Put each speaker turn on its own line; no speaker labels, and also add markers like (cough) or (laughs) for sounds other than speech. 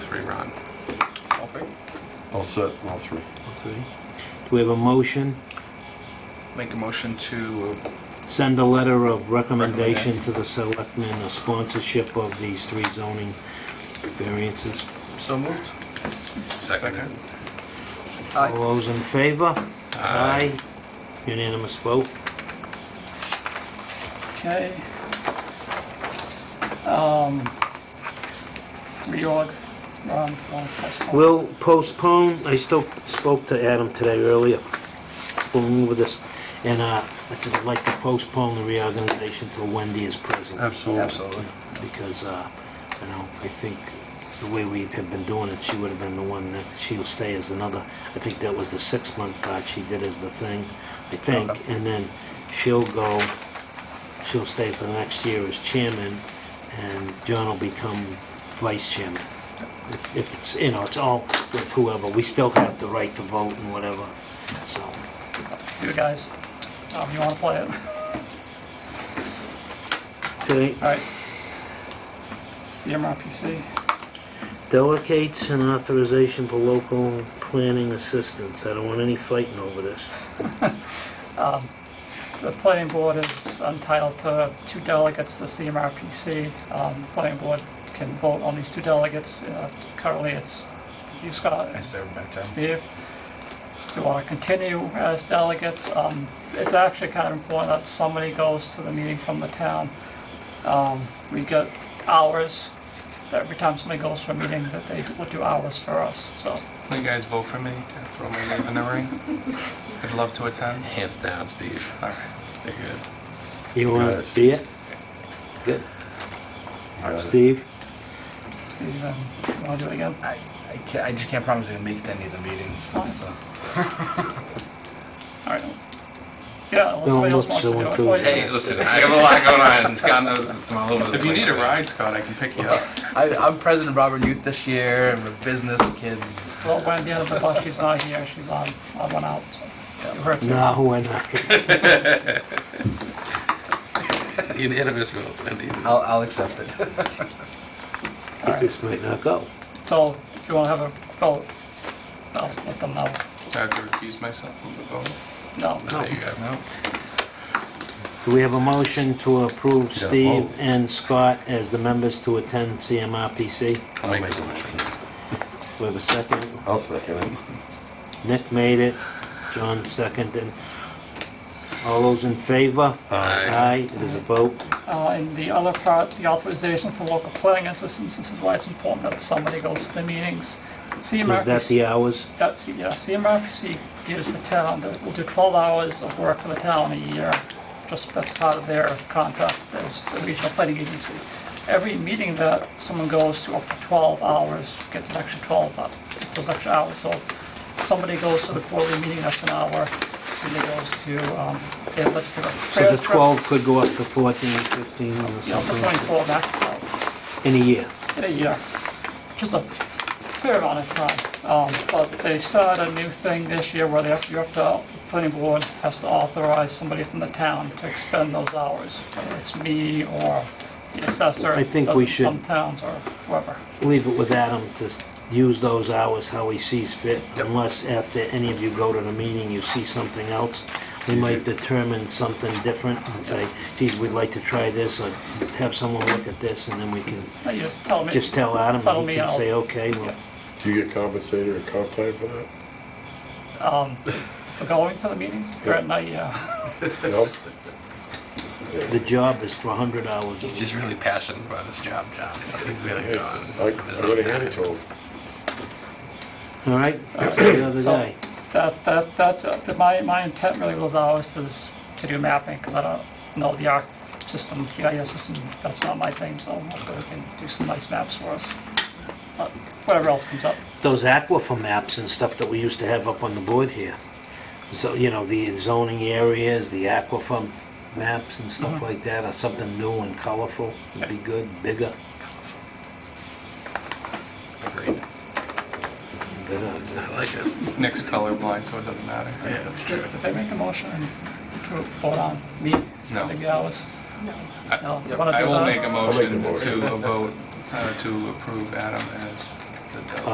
rerun.
All favor?
All set, all three.
Okay.
Do we have a motion?
Make a motion to
Send a letter of recommendation to the selectmen of sponsorship of these three zoning variances.
So moved.
second.
All those in favor? Aye. Unanimous vote?
Okay. Um, reorg, Ron, Ron, postpone.
We'll postpone, I still spoke to Adam today earlier, we'll move with this, and uh, I said I'd like to postpone the reorganization till Wendy is present,
Absolutely.
because, uh, you know, I think the way we have been doing it, she would have been the one that, she'll stay as another, I think that was the six-month part she did as the thing, I think, and then she'll go, she'll stay for the next year as chairman, and John will become vice chairman if- if it's, you know, it's all with whoever, we still have the right to vote and whatever, so.
you guys, um, you wanna play it?
Okay,
All right. CMRPC,
delegates and authorization for local planning assistance, I don't want any fighting over this.
um, the planning board is entitled to two delegates to CMRPC. Um, the planning board can vote on these two delegates. Uh, Currently, it's you, Scott, and
I serve back down.
Steve, do you want to continue as delegates? Um, It's actually kind of important that somebody goes to the meeting from the town. Um, We get hours, every time somebody goes to a meeting, that they will do hours for us, so.
Will you guys vote for me to throw my name in the ring? I'd love to attend.
Hands down, Steve.
All right, very good.
You wanna
Yes.
be it? Good. Steve?
Steve, um, you want to do it again?
I, I can't, I just can't promise I'm gonna make it to any of the meetings, so.
(laughs) All right. Yeah, unless somebody else
look,
wants to
so
do it.
enthused.
for you.
Hey, listen, I have a lot going on, and Scott knows this from all over the
If you
place,
need a
man.
ride, Scott, I can pick
(laughs)
you up.
I, I'm president of Robert Youth this year, and we're business kids.
Well, Wendy on the bus, she's not here, she's on, I went out. so You heard me.
No, we're not.
Unanimous vote, Wendy.
I'll, I'll accept it.
This might not go.
So if you want to have a vote, I'll let them know.
I have to recuse myself from the vote.
No.
There you go.
No.
Do we have a motion to approve
Yeah,
Steve
vote.
and Scott as the members to attend CMRPC?
I'll make the motion.
We have a second?
I'll second it.
Nick made it, John seconded. All those in favor? Aye, it is a vote.
Uh, And the other part, the authorization for local planning assistance, this is why it's important that somebody goes to the meetings.
Is that the hours?
That's, yeah, CMRPC gives the town, the- will do 12 hours of work for the town a year, just that's part of their contract as the regional planning agency. Every meeting that someone goes to up to 12 hours gets an extra 12, hou- gets those extra hours. So if somebody goes to the quarterly meeting, that's an hour, somebody goes to, um, their legislative
So
affairs
the 12
group,
could go up to 14, 15 or
you know, for
something
24 max, so
in a year.
in a year, just a fair amount of time. Um, But they started a new thing this year where they have, you have to, the planning board has to authorize somebody from the town to expend those hours, whether it's me or the assessor.
I think we
does it in
should-
Some towns or whoever.
Leave it with Adam to s- use those hours how he sees fit, unless after any of you go to the meeting, you see something else. We might determine something different and say, geez, we'd like to try this, or have someone look at this, and then we can
Now, you just tell me.
just tell Adam,
Follow
and he
me
can
out.
say, okay, well,
Do you get compensated or comp time for (laughs) that?
um, For going to the meetings, Brett and I, yeah.
Nope.
the job is for 100 hours a
He's
week.
just really passionate about his job, John, so he's really gone.
him.
All
(coughs)
right, that's the other
So-
day.
That, that, that's, uh, but my, my intent really was always to, s- to do mapping, because I don't know the arc system, GIS system, that's not my thing, so hopefully we can do some nice maps for us. But Whatever else comes up.
those aquifer maps and stuff that we used to have up on the board here. So, you know, the zoning areas, the aquifer maps and stuff like that, or something new and colorful would be good, bigger,
Agreed.
better.
I like it.
Nick's colorblind, so it doesn't matter.
Yeah, that's true.
Did they make a motion to vote on me spending the hours? No.
I will make a
I'll make the
motion
motion.
to a vote, uh, to approve Adam as the deadline.